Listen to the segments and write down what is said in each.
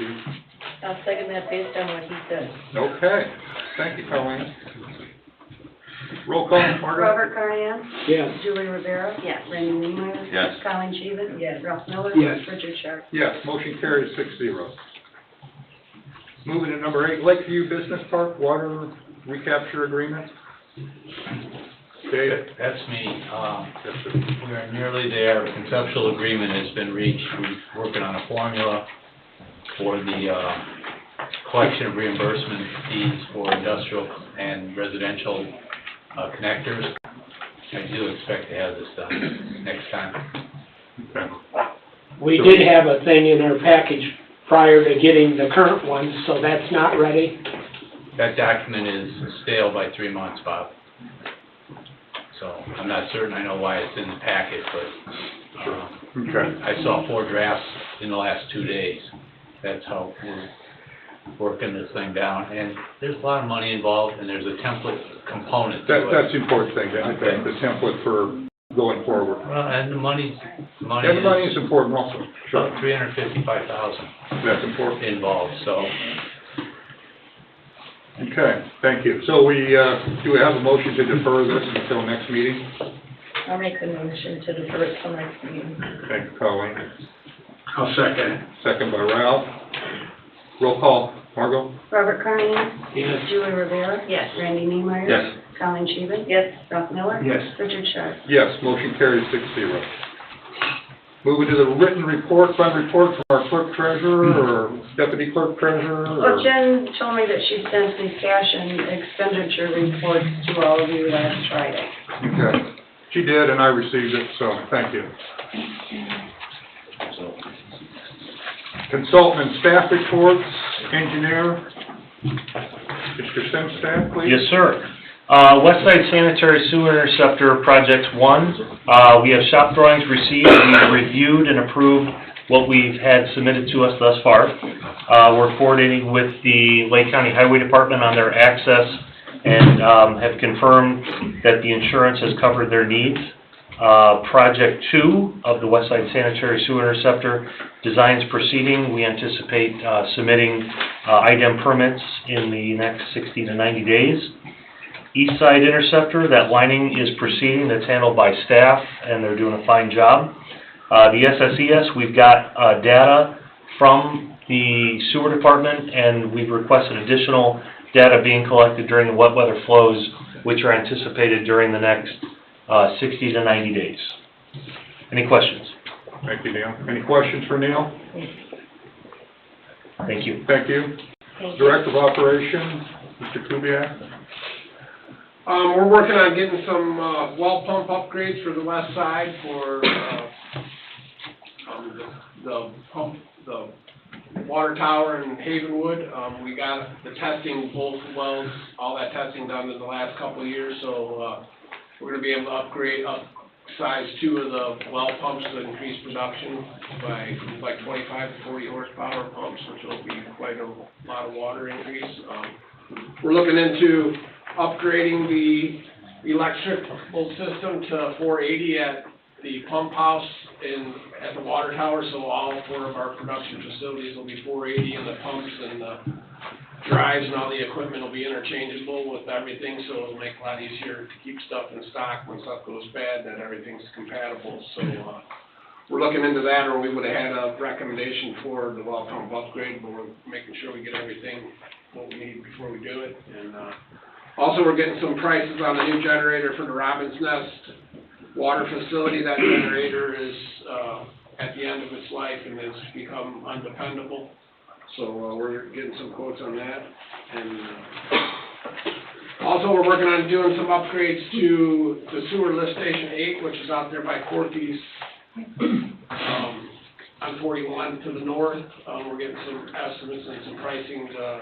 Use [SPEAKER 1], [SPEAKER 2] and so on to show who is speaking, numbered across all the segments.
[SPEAKER 1] you.
[SPEAKER 2] I'll second that based on what he said.
[SPEAKER 1] Okay, thank you, Colleen. Roll call, Margaret?
[SPEAKER 3] Robert Carnian.
[SPEAKER 4] Yes.
[SPEAKER 3] Julie Rivera.
[SPEAKER 2] Yes.
[SPEAKER 3] Randy Neiman.
[SPEAKER 5] Yes.
[SPEAKER 3] Colin Sheehan.
[SPEAKER 2] Yes.
[SPEAKER 3] Ralph Miller.
[SPEAKER 4] Yes.
[SPEAKER 3] Richard Sharp.
[SPEAKER 1] Yes, motion carries six zero. Moving to number eight, Lakeview Business Park Water Recapture Agreement. Dave?
[SPEAKER 6] That's me. Um,
[SPEAKER 1] Yes, sir.
[SPEAKER 6] We are nearly there. Conceptual agreement has been reached. We're working on a formula for the uh, collection of reimbursement fees for industrial and residential uh, connectors. I do expect to have this done next time.
[SPEAKER 1] Okay.
[SPEAKER 4] We did have a thing in our package prior to getting the current one, so that's not ready.
[SPEAKER 6] That document is stale by three months, Bob. So I'm not certain I know why it's in the packet, but um,
[SPEAKER 1] Okay.
[SPEAKER 6] I saw four drafts in the last two days. That's how we're working this thing down. And there's a lot of money involved, and there's a template component
[SPEAKER 1] That,
[SPEAKER 6] to it.
[SPEAKER 1] that's the important thing, I think, the template for going forward.
[SPEAKER 6] Well, and the money's, the money
[SPEAKER 1] And the money is
[SPEAKER 6] is
[SPEAKER 1] important also.
[SPEAKER 6] about three hundred fifty-five thousand
[SPEAKER 1] That's important.
[SPEAKER 6] involved, so
[SPEAKER 1] Okay, thank you. So we, uh, do we have a motion to defer this until next meeting?
[SPEAKER 2] I'll make the motion to defer it till next meeting.
[SPEAKER 1] Thank you, Colleen.
[SPEAKER 4] I'll second.
[SPEAKER 1] Second by Ralph. Roll call, Margot?
[SPEAKER 3] Robert Carnian.
[SPEAKER 4] Yes.
[SPEAKER 3] Julie Rivera.
[SPEAKER 2] Yes.
[SPEAKER 3] Randy Neiman.
[SPEAKER 1] Yes.
[SPEAKER 3] Colin Sheehan.
[SPEAKER 2] Yes,
[SPEAKER 3] Ralph Miller.
[SPEAKER 4] Yes.
[SPEAKER 3] Richard Sharp.
[SPEAKER 1] Yes, motion carries six zero. Moving to the written report, fund report from our clerk treasurer or deputy clerk treasurer
[SPEAKER 3] Well,
[SPEAKER 1] or?
[SPEAKER 3] Jen told me that she sent the cash and expenditure reports to all of you last Friday.
[SPEAKER 1] Okay, she did and I received it, so thank you. Consultant and staff reports, engineer, Mr. Simstaff, please.
[SPEAKER 7] Yes, sir. Uh, West Side Sanitary Sewer Interceptor Project One, uh, we have shop drawings received, we've reviewed and approved what we've had submitted to us thus far. Uh, we're coordinating with the Lake County Highway Department on their access and, um, have confirmed that the insurance has covered their needs. Uh, Project Two of the West Side Sanitary Sewer Interceptor, design's proceeding, we anticipate, uh, submitting, uh, IDEM permits in the next sixty to ninety days. East Side Interceptor, that lining is proceeding, that's handled by staff, and they're doing a fine job. Uh, the SSES, we've got, uh, data from the sewer department, and we've requested additional data being collected during the wet weather flows, which are anticipated during the next, uh, sixty to ninety days. Any questions?
[SPEAKER 1] Thank you, Neil. Any questions for Neil?
[SPEAKER 7] Thank you.
[SPEAKER 1] Thank you.
[SPEAKER 2] thank you.
[SPEAKER 1] Director of Operations, Mr. Kubiac.
[SPEAKER 8] Um, we're working on getting some, uh, well pump upgrades for the west side for, uh, um, the, the pump, the water tower in Havenwood. Um, we got the testing, both wells, all that testing done in the last couple of years, so, uh, we're gonna be able to upgrade, up size two of the well pumps to increase production by, like twenty-five to forty horsepower pumps, which will be quite a lot of water increase. Um, We're looking into upgrading the electrical system to four eighty at the pump house and at the water tower, so all four of our production facilities will be four eighty, and the pumps and the drives and all the equipment will be interchangeable with everything, so it'll make it a lot easier to keep stuff in stock when stuff goes bad, that everything's compatible, so, uh, we're looking into that, or we would've had a recommendation for the well pump upgrade, but we're making sure we get everything, what we need before we do it, and, uh, also, we're getting some prices on the new generator for the Robin's Nest water facility. That generator is, uh, at the end of its life and has become undependable. So, uh, we're getting some quotes on that. And, uh, also, we're working on doing some upgrades to the sewer lift station eight, which is out there by Corky's, um, on forty-one to the north. Uh, we're getting some estimates and some pricing, uh,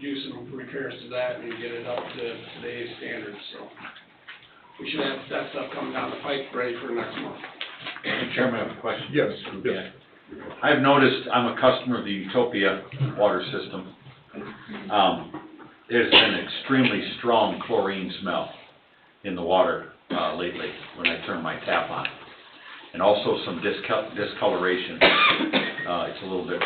[SPEAKER 8] do some repairs to that and get it up to today's standards, so. We should have that stuff coming down the pipe ready for next month.
[SPEAKER 5] Mr. Chairman, I have a question.
[SPEAKER 1] Yes, yes.
[SPEAKER 5] I've noticed, I'm a customer of the Utopia water system. Um, there's been extremely strong chlorine smell in the water, uh, lately, when I turn my tap on. And also some discol- discoloration, uh, it's a little bit